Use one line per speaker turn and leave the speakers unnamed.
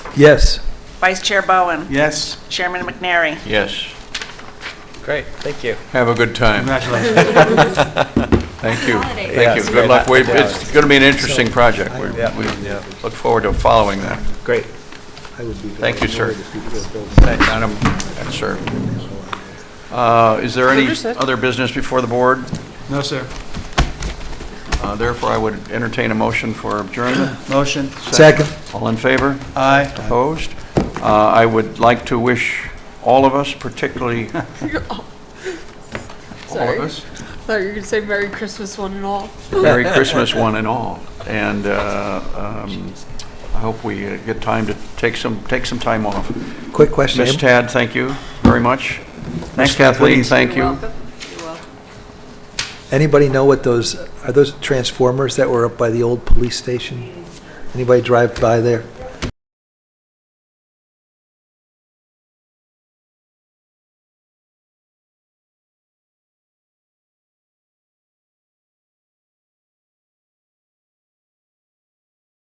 Yes.
Vice Chair Bowen,
Yes,
Chairman McNary.
Yes.
Great, thank you.
Have a good time.
congratulations.
Thank you.
Holidays.
Thank you.
Yes,
Good luck.
happy
We-
holidays.
It's going to be an interesting project. We
Yeah.
we look forward to following that.
Great.
Thank you, sir. Madam, and sir. Uh, Is there any other business before the board?
No, sir.
Uh, Therefore, I would entertain a motion for adjournment.
Motion.
Second.
All in favor?
Aye.
Opposed? Uh, I would like to wish all of us, particularly all
Sorry.
of us,
thought you were going to say Merry Christmas, one and all.
Merry Christmas, one and all. And uh, um, I hope we uh, get time to take some, take some time off.
Quick question.
Miss Tad, thank you very much. Miss Kathleen,
please.
thank you.
Anybody know what those, are those transformers that were up by the old police station? Anybody drive by there?